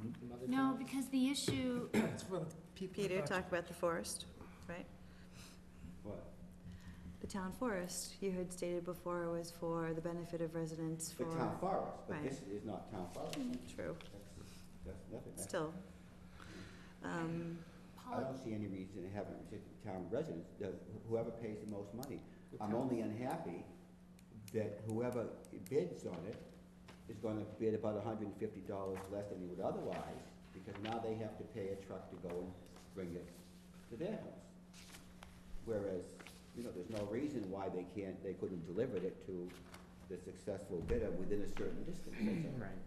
the No, forest. because the issue, It's for the people. Peter, talk about the forest, right? What? The town forest, you had stated before, was for the benefit of residents The for. town forest, but Right. this is not town forest. True, That's, that's nothing. That's- still. Um, I Paul, don't see any reason to have it restricted to town residents, The- whoever pays the most money. I'm only unhappy that whoever bids on it is gonna bid about hundred and fifty dollars less than he would otherwise, because now they have to pay a truck to go and bring it to their house. Whereas, you know, there's no reason why they can't, they couldn't deliver it to the successful bidder within a certain distance, that's all. Right.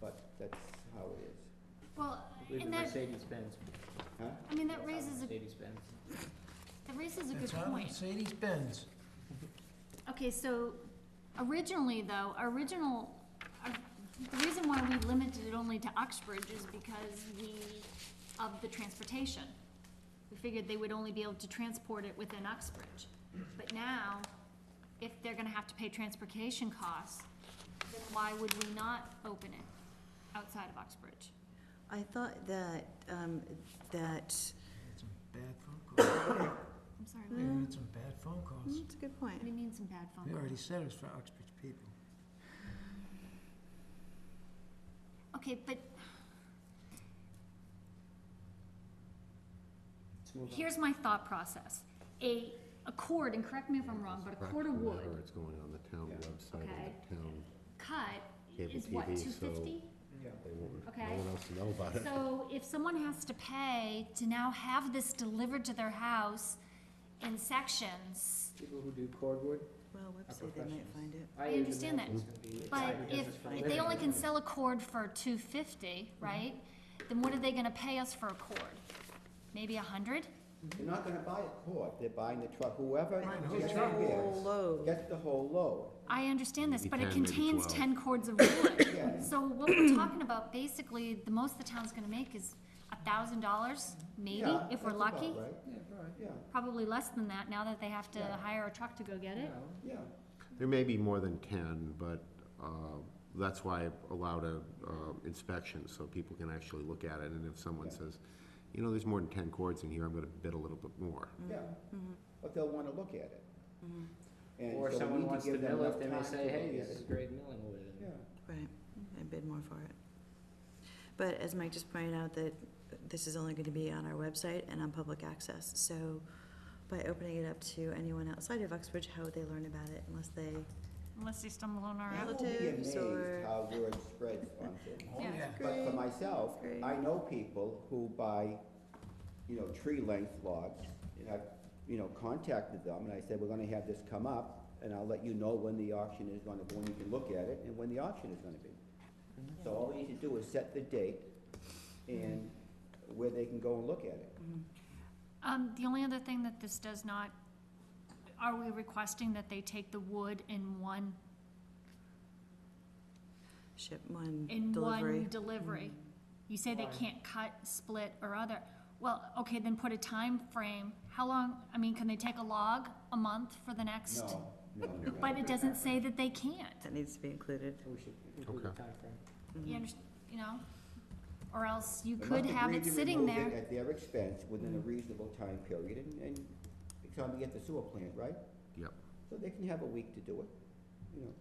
But that's how it is, well, I believe and the that, Mercedes-Benz. huh? I mean, that raises a, Mercedes-Benz. that raises a good That's on point. Mercedes Benz. Okay, so originally though, our original, our, the reason why we limited it only to Uxbridge is because we, of the transportation. We figured they would only be able to transport it within Uxbridge. But now, if they're gonna have to pay transportation costs, then why would we not open it outside of Uxbridge? I thought that, um, that, Had some bad phone calls. Mm-hmm. I'm sorry, We what had some bad phone calls. hmm, that's a good what do point. you mean some bad phone We calls? already said it was for Uxbridge people. Okay, but Let's move on. here's my thought process. A, a cord, and correct me if I'm wrong, but a cord of wood It's going on the town Yeah. website Okay. of the town, cut Cable is what, TV, two so- fifty? Yeah. they won't, Okay. no one else will know about it. So if someone has to pay to now have this delivered to their house in sections, People who do cordwood. Well, website, they might professionals. find it. I use understand them. that, It's gonna be but side if, business for if living. they only can sell a cord for two fifty, right? Then what are they gonna pay us for a cord? Maybe a hundred? They're not gonna buy a cord, they're buying the truck, whoever know, gets the truck. bids Whole load. Gets the whole load. I understand this, Maybe but it 10, maybe contains 12. ten cords of wood. Yeah. So what we're talking about, basically, the most the town's gonna make is a thousand dollars, maybe, Yeah, if we're that's about lucky. right. Yeah, probably. Yeah, Probably less than that, now that they have to Yeah. hire a truck to go get it. No. yeah. Mm-hmm. There may be more than ten, but, uh, that's why I allowed a, uh, inspection, so people can actually look at it, and if someone Yeah. says, you know, there's more than ten cords in here, I'm gonna bid a little bit more. Yeah, Mm-hmm. but they'll wanna look at it. And Or so we need someone wants to give them mill enough it, they may time say, to hey, look at this is it." great milling wood. and- Yeah, Right, I bid more for it. But as Mike just pointed out, that this is only gonna be on our website and on public access, so by opening it up to anyone outside of Uxbridge, how would they learn about it unless they, Unless they stumble on our I will be Relatives amazed or- how word spreads on things. Oh, Yeah. But for Great. myself, Great. I know people who buy, you know, tree length logs, and I've, you know, contacted them, and I said, we're gonna have this come up, and I'll let you know when the auction is gonna, when you can look at it, and when the auction is gonna be. Mm-hmm. So all we need to do is set the date and Mm-hmm. where they can go and look at it. Um, the only other thing that this does not, are we requesting that they take the wood in one, ship one in delivery? one delivery? You say they Why? can't cut, split, or other, well, okay, then put a time frame. how long, I mean, can they take a log, a month for the next? No, no, no. But it doesn't say that they can't, That needs to be included. Mm-hmm. We should include the Okay. timeframe. you underst- you know? Or else you They could must have agree it to sitting remove it there, At their expense, within a Mm-hmm. reasonable time period, and, and it's time to get the sewer plant, right? Yep. So they can have a week to do it, you know.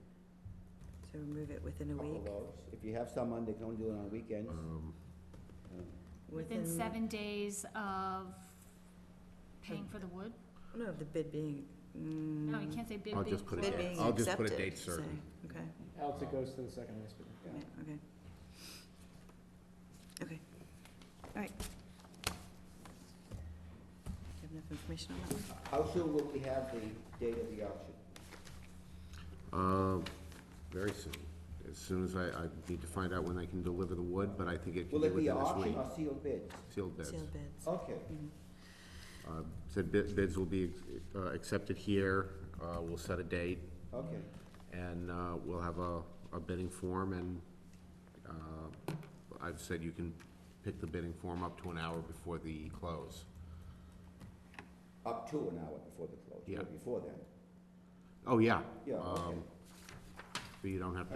So remove it within a couple week. of those. Oh, If you have someone, they can only do it on weekends. Um, Um, within seven days of paying for the wood? No, the bid being, mm. No, you can't say bid I'll being just put a Bid closed. date. being I'll just put a accepted, date say. certain. Okay, Else it goes to the second list. yeah. right, okay. Okay, all right. Do you have enough information on that? How soon will we have the date of the auction? Uh, very soon, as soon as I, I need to find out when I can deliver the wood, but I think it can Will be it be within an this auction week. or sealed bids? Sealed bids. Sealed bids. Okay, Uh, Said bid- bids will be uh, accepted here, uh, we'll set a date, okay. and uh, we'll have a a bidding form, and uh, I've said you can pick the bidding form up to an hour before the close. Up to an hour before the close, Yeah. or before then. Oh, yeah. Yeah, okay. Um, So you don't have to